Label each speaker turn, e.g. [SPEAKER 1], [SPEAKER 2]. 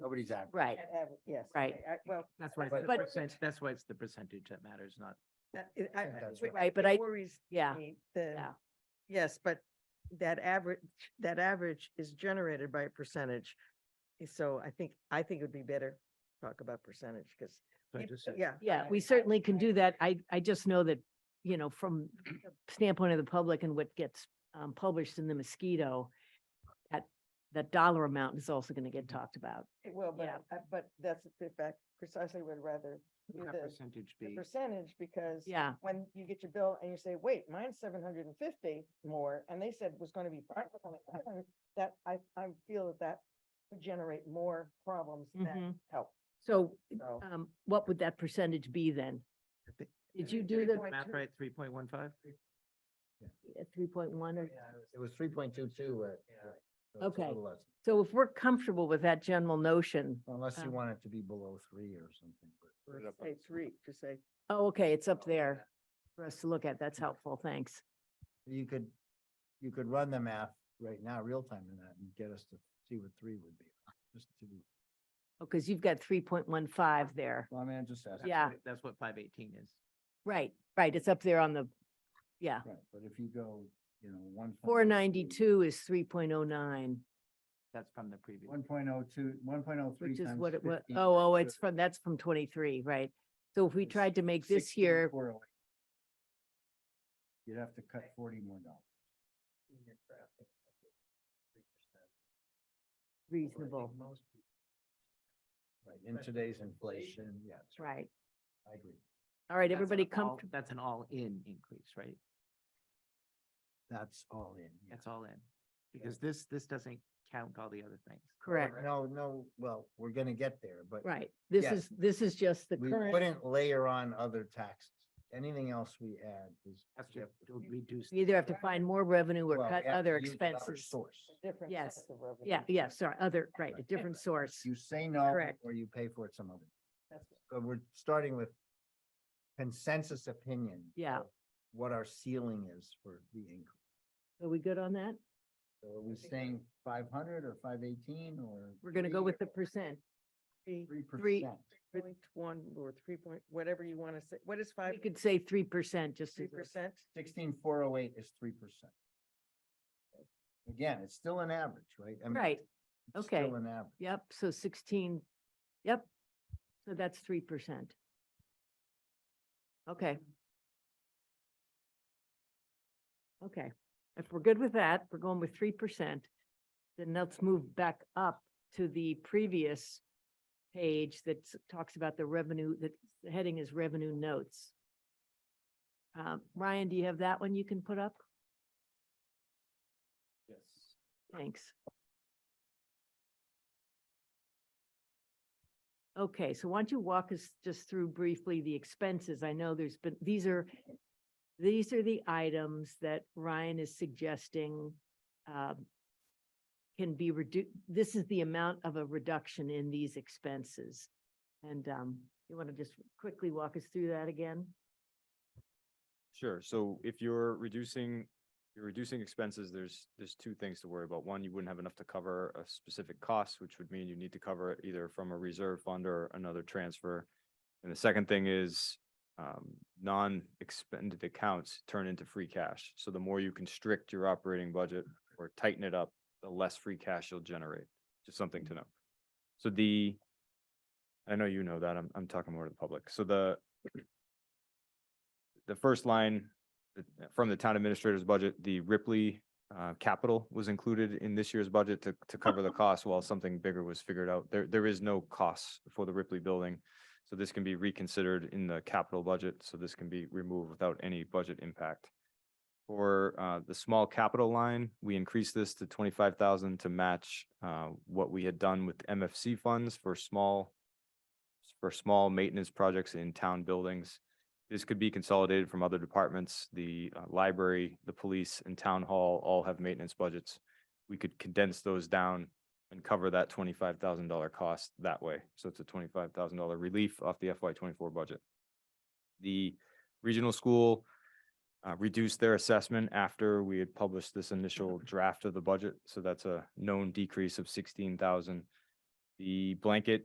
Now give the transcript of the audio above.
[SPEAKER 1] Nobody's average.
[SPEAKER 2] right,
[SPEAKER 3] Average, Yes.
[SPEAKER 2] Right.
[SPEAKER 3] okay, I- Well,
[SPEAKER 4] That's why, it's
[SPEAKER 1] But-
[SPEAKER 4] the
[SPEAKER 2] But-
[SPEAKER 4] percent- that's why it's the percentage that matters, not.
[SPEAKER 3] that- it- I-
[SPEAKER 1] think
[SPEAKER 3] I-
[SPEAKER 1] that's
[SPEAKER 3] it-
[SPEAKER 2] right, but I-
[SPEAKER 3] It worries
[SPEAKER 2] yeah.
[SPEAKER 3] me, the,
[SPEAKER 2] yeah.
[SPEAKER 3] yes, but that average, that average is generated by a percentage. eh, So I think, I think it would be better to talk about percentage, because,
[SPEAKER 4] so I
[SPEAKER 3] Yep,
[SPEAKER 4] just said-
[SPEAKER 3] yeah.
[SPEAKER 2] Yeah, we certainly can do that. I, I just know that, you know, from the standpoint of the public and what gets um, published in the mosquito, that, that dollar amount is also going to get talked about.
[SPEAKER 3] It will, but,
[SPEAKER 2] Yeah.
[SPEAKER 3] I- I- but that's the fact, precisely would rather do
[SPEAKER 4] That
[SPEAKER 3] the,
[SPEAKER 4] percentage
[SPEAKER 3] the
[SPEAKER 4] be,
[SPEAKER 3] percentage, because
[SPEAKER 2] Yeah,
[SPEAKER 3] when you get your bill and you say, wait, mine's seven hundred and fifty more, and they said was gonna be 500," that, I, I feel that that would generate more problems than
[SPEAKER 2] Mhm.
[SPEAKER 3] help,
[SPEAKER 2] so
[SPEAKER 3] so.
[SPEAKER 2] um, what would that percentage be then?
[SPEAKER 4] I think-
[SPEAKER 2] Did you do the
[SPEAKER 3] Point
[SPEAKER 4] math
[SPEAKER 3] two.
[SPEAKER 4] right, three point one five?
[SPEAKER 2] three point one or?
[SPEAKER 1] It was three point two two. uh,
[SPEAKER 2] Okay. So if we're comfortable with that general notion,
[SPEAKER 1] Unless you
[SPEAKER 2] Um,
[SPEAKER 1] want it to be below three or something. but-
[SPEAKER 3] Or Say three, to say,
[SPEAKER 2] oh, okay, it's up there for us to look at. That's helpful. Thanks.
[SPEAKER 1] You could, you could run the math right now, real time in that and get us to see what three would be. Just to,
[SPEAKER 2] Because Oh, you've got three point one five there.
[SPEAKER 1] well, I mean, I just asked.
[SPEAKER 2] Yeah.
[SPEAKER 4] That's what five eighteen is.
[SPEAKER 2] Right, right. It's up there on the, yeah.
[SPEAKER 1] Right, but if you go, you know, one.
[SPEAKER 2] Four ninety-two is three point oh nine,
[SPEAKER 4] That's from the previous.
[SPEAKER 1] One point oh two, one point oh three
[SPEAKER 2] which is
[SPEAKER 1] times
[SPEAKER 2] what it was.
[SPEAKER 1] 15
[SPEAKER 2] Oh, oh,
[SPEAKER 1] is
[SPEAKER 2] it's from, that's from twenty-three, right? So if we
[SPEAKER 1] It's
[SPEAKER 2] tried to make this
[SPEAKER 1] 16
[SPEAKER 2] year,
[SPEAKER 1] correlate. oh You'd have to cut forty more dollars.
[SPEAKER 2] reasonable,
[SPEAKER 1] Right, in today's inflation, yes,
[SPEAKER 2] right?
[SPEAKER 1] I agree.
[SPEAKER 2] All right,
[SPEAKER 4] That's an
[SPEAKER 2] everybody
[SPEAKER 4] all-
[SPEAKER 2] comfortable?
[SPEAKER 4] That's an all-in increase, right?
[SPEAKER 1] That's all in. yeah.
[SPEAKER 4] That's all in. Because this, this doesn't count all the other things.
[SPEAKER 2] Correct,
[SPEAKER 1] No, no, well, we're gonna get there, but.
[SPEAKER 2] right. This
[SPEAKER 1] Yes.
[SPEAKER 2] is, this is just the
[SPEAKER 1] We
[SPEAKER 2] current,
[SPEAKER 1] wouldn't layer on other taxes. Anything else we add is.
[SPEAKER 4] That's to reduce.
[SPEAKER 2] you either have to find more revenue
[SPEAKER 1] well,
[SPEAKER 2] or
[SPEAKER 1] we
[SPEAKER 2] cut
[SPEAKER 1] have to
[SPEAKER 2] other
[SPEAKER 1] use another
[SPEAKER 2] expenses.
[SPEAKER 1] Source.
[SPEAKER 3] different.
[SPEAKER 2] Yes.
[SPEAKER 3] types of revenue.
[SPEAKER 2] Yeah, yeah, sorry, other, right, a different source.
[SPEAKER 1] You say no,
[SPEAKER 2] Correct.
[SPEAKER 1] or you pay for it some other.
[SPEAKER 3] That's it.
[SPEAKER 1] So uh, we're starting with consensus opinion.
[SPEAKER 2] Yeah.
[SPEAKER 1] of What our ceiling is for the increase.
[SPEAKER 2] Are we good on that?
[SPEAKER 1] So Are we saying five hundred or five eighteen or?
[SPEAKER 2] We're gonna go with the percent.
[SPEAKER 3] Three
[SPEAKER 1] Three
[SPEAKER 2] three-
[SPEAKER 1] percent.
[SPEAKER 3] point one or three point, whatever you want to say, what is five,
[SPEAKER 2] We could say three percent just
[SPEAKER 3] three
[SPEAKER 2] to.
[SPEAKER 3] percent?
[SPEAKER 1] Sixteen four oh eight is three percent. Again, it's still an average, right? I mean,
[SPEAKER 2] Right,
[SPEAKER 1] it's
[SPEAKER 2] okay.
[SPEAKER 1] Still an average.
[SPEAKER 2] Yep, so sixteen, yep. So that's three percent. Okay. Okay, if we're good with that, we're going with three percent. Then let's move back up to the previous page that s- talks about the revenue, that the heading is revenue notes. Um, Ryan, do you have that one you can put up?
[SPEAKER 1] Yes.
[SPEAKER 2] Thanks. Okay, so why don't you walk us just through briefly the expenses? I know there's been, these are, these are the items that Ryan is suggesting um, can be reduced, this is the amount of a reduction in these expenses. And um, you want to just quickly walk us through that again?
[SPEAKER 5] Sure. So if you're reducing, you're reducing expenses, there's, there's two things to worry about. One, you wouldn't have enough to cover a specific cost, which would mean you need to cover it either from a reserve fund or another transfer. And the second thing is, um, non-expended accounts turn into free cash. So the more you constrict your operating budget or tighten it up, the less free cash you'll generate. Just something to know. So the, I know you know that, I'm, I'm talking more to the public. So the, the first line uh, from the town administrator's budget, the Ripley uh, capital was included in this year's budget to, to cover the cost while something bigger was figured out. There, there is no cost for the Ripley building. So this can be reconsidered in the capital budget, so this can be removed without any budget impact. For uh, the small capital line, we increased this to twenty-five thousand to match uh, what we had done with MFC funds for small for small maintenance projects in town buildings. This could be consolidated from other departments. The uh, library, the police and town hall all have maintenance budgets. We could condense those down and cover that twenty-five thousand dollar cost that way. So it's a twenty-five thousand dollar relief off the FY twenty-four budget. The regional school uh, reduced their assessment after we had published this initial draft of the budget. So that's a known decrease of sixteen thousand. The blanket